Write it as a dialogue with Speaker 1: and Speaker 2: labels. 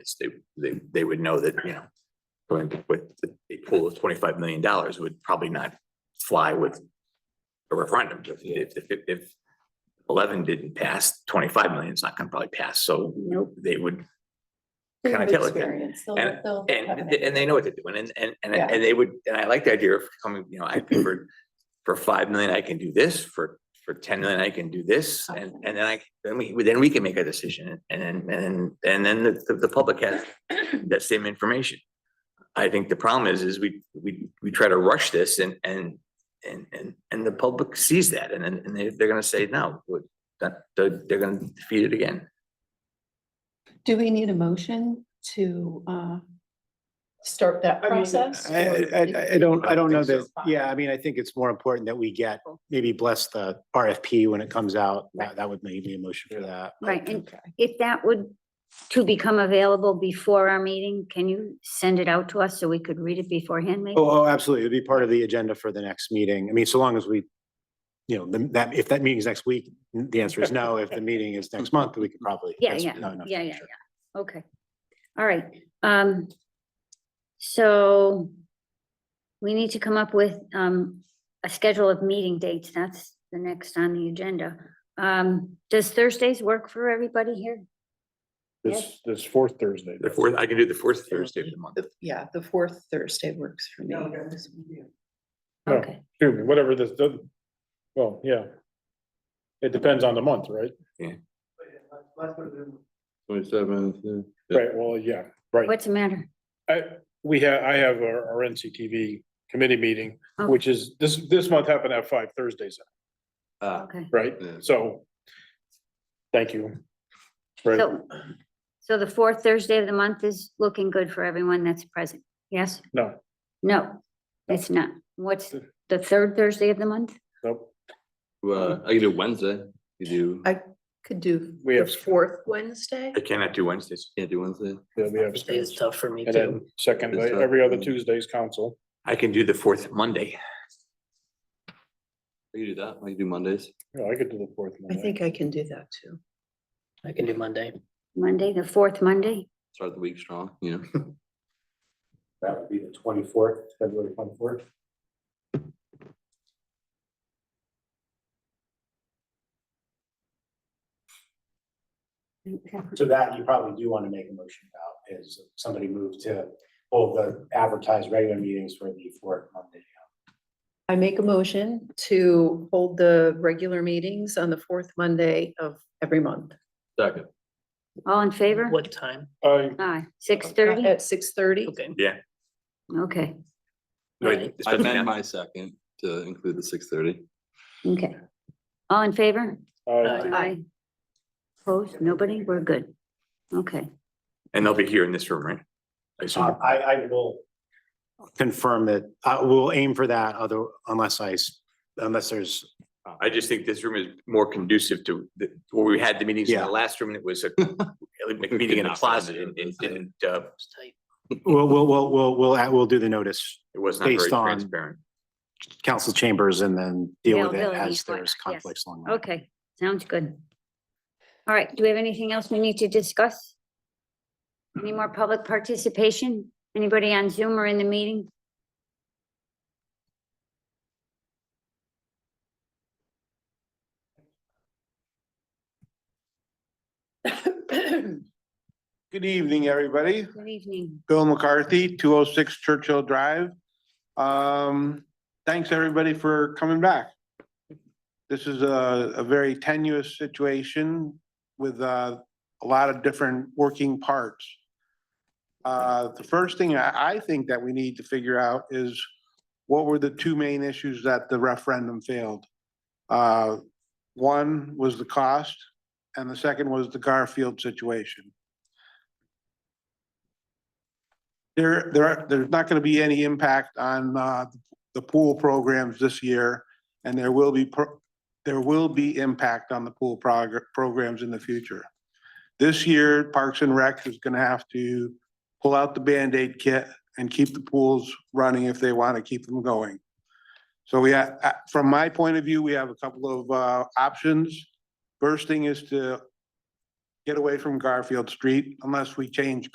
Speaker 1: is, they, they, they would know that, you know, going with a pool of twenty-five million dollars would probably not fly with a referendum. If- If, if, if eleven didn't pass, twenty-five million is not gonna probably pass, so
Speaker 2: Nope.
Speaker 1: they would,
Speaker 2: They
Speaker 1: kinda
Speaker 2: have
Speaker 1: tell it that-
Speaker 2: experience, they'll- they'll have
Speaker 1: and,
Speaker 2: an-
Speaker 1: and they know what they're doing, and, and, and,
Speaker 2: Yeah.
Speaker 1: and they would, and I like the idea of coming, you know, I, for, for five million, I can do this, for, for ten million, I can do this, and, and then I, then we, then we can make a decision, and then, and then, and then the, the- the public has that same information. I think the problem is, is we, we, we try to rush this and, and, and, and, and the public sees that, and then, and they, they're gonna say, no, what- that, they're, they're gonna defeat it again.
Speaker 2: Do we need a motion to uh start that
Speaker 3: I mean,
Speaker 2: process?
Speaker 4: I,
Speaker 2: or
Speaker 4: I- I, I don't, I
Speaker 1: I
Speaker 4: don't know
Speaker 1: don't think
Speaker 4: that, yeah, I mean, I think it's more important that we get, maybe bless the RFP when it comes out. That, that would maybe a motion for that. but-
Speaker 5: Right, and if that would, to become available before our meeting, can you send it out to us so we could read it beforehand, maybe?
Speaker 4: Oh, oh, absolutely. It'd be part of the agenda for the next meeting. I mean, so long as we, you know, the- that, if that meeting's next week, the answer is no. If the meeting is next month, we could probably.
Speaker 5: Yeah,
Speaker 4: that's
Speaker 5: yeah,
Speaker 4: not enough
Speaker 5: yeah,
Speaker 4: time,
Speaker 5: yeah,
Speaker 4: sure.
Speaker 5: yeah. Okay. All right, um, so we need to come up with, um, a schedule of meeting dates. That's the next on the agenda. Um, does Thursdays work for everybody here?
Speaker 6: This, this fourth Thursday.
Speaker 1: The fourth, I can do the fourth Thursday of the month.
Speaker 2: The- Yeah, the fourth Thursday works for me.
Speaker 6: No.
Speaker 5: Okay,
Speaker 6: Excuse me, whatever this, does- well, yeah. It depends on the month, right?
Speaker 7: Twenty-seventh, yeah.
Speaker 6: Right, well, yeah, right.
Speaker 5: what's the matter?
Speaker 6: I, we have, I have our, our NCTV committee meeting,
Speaker 2: Oh.
Speaker 6: which is, this, this month happened to have five Thursdays,
Speaker 7: Ah,
Speaker 5: Okay,
Speaker 6: right?
Speaker 7: Yeah.
Speaker 6: So, thank you. Right,
Speaker 5: so, so the fourth Thursday of the month is looking good for everyone that's present, yes?
Speaker 6: no,
Speaker 5: No, it's not.
Speaker 8: Hmm.
Speaker 5: What's the third Thursday of the month?
Speaker 6: nope,
Speaker 7: well, I can do Wednesday, you do,
Speaker 2: I- Could do
Speaker 6: We
Speaker 2: the
Speaker 6: have-
Speaker 2: fourth Wednesday.
Speaker 1: I cannot do Wednesdays.
Speaker 7: can't do Wednesday.
Speaker 6: yeah, we have.
Speaker 2: Wednesday is tough for me
Speaker 6: And
Speaker 2: too.
Speaker 6: then second, every other Tuesday's council.
Speaker 1: I can do the fourth Monday.
Speaker 7: I can do that, I can do Mondays.
Speaker 6: Yeah, I could do the fourth.
Speaker 2: I
Speaker 6: Monday.
Speaker 2: think I can do that too.
Speaker 8: I can do Monday.
Speaker 5: Monday, the fourth Monday?
Speaker 7: Start the week strong, you know.
Speaker 4: That would be the twenty-fourth, February twenty-fourth.
Speaker 5: Okay.
Speaker 4: So that you probably do want to make a motion about is somebody move to hold the advertised regular meetings for the fourth Monday.
Speaker 2: I make a motion to hold the regular meetings on the fourth Monday of every month
Speaker 7: Second.
Speaker 5: All in favor?
Speaker 8: What time?
Speaker 6: I,
Speaker 5: Aye, six thirty?
Speaker 2: at six thirty.
Speaker 8: Okay.
Speaker 5: Okay,
Speaker 1: Wait,
Speaker 7: I
Speaker 1: especially
Speaker 7: amend
Speaker 1: now.
Speaker 7: my second to include the six thirty.
Speaker 5: okay. All in favor?
Speaker 6: I,
Speaker 8: Aye.
Speaker 5: Aye. Opposed? Nobody? We're good. Okay,
Speaker 1: And they'll be here in this room, right? I
Speaker 4: So
Speaker 1: assume.
Speaker 4: Uh, I, I will confirm that, I will aim for that other, unless I, s- unless there's,
Speaker 1: I just think this room is more conducive to the, where we had the meetings in
Speaker 4: Yeah.
Speaker 1: the last room, and it was a a meeting in a closet and it didn't, uh,
Speaker 8: It's tight.
Speaker 4: we'll, we'll, we'll, we'll, we'll, add- we'll do the notice,
Speaker 1: it was not very
Speaker 4: Based on-
Speaker 1: transparent.
Speaker 4: council chambers and then deal with it
Speaker 5: Availability,
Speaker 4: as
Speaker 5: whatnot,
Speaker 4: there's
Speaker 5: yes.
Speaker 4: conflicts along. the way.
Speaker 5: okay, sounds good. All right, do we have anything else we need to discuss? Any more public participation? Anybody on Zoom or in the meeting?
Speaker 9: Good evening, everybody.
Speaker 5: Good evening.
Speaker 9: Bill McCarthy, two oh six Churchill Drive. Um, thanks, everybody, for coming back. This is a, a very tenuous situation with, uh, a lot of different working parts. Uh, the first thing I, I think that we need to figure out is what were the two main issues that the referendum failed? Uh, one was the cost, and the second was the Garfield situation. There, there, are- there's not gonna be any impact on, uh, the pool programs this year, and there will be, pro- there will be impact on the pool progr- programs in the future. This year, Parks and Rec is gonna have to pull out the Band-Aid kit and keep the pools running if they wanna keep them going. So we, ha- uh, from my point of view, we have a couple of, uh, options. First thing is to get away from Garfield Street unless we change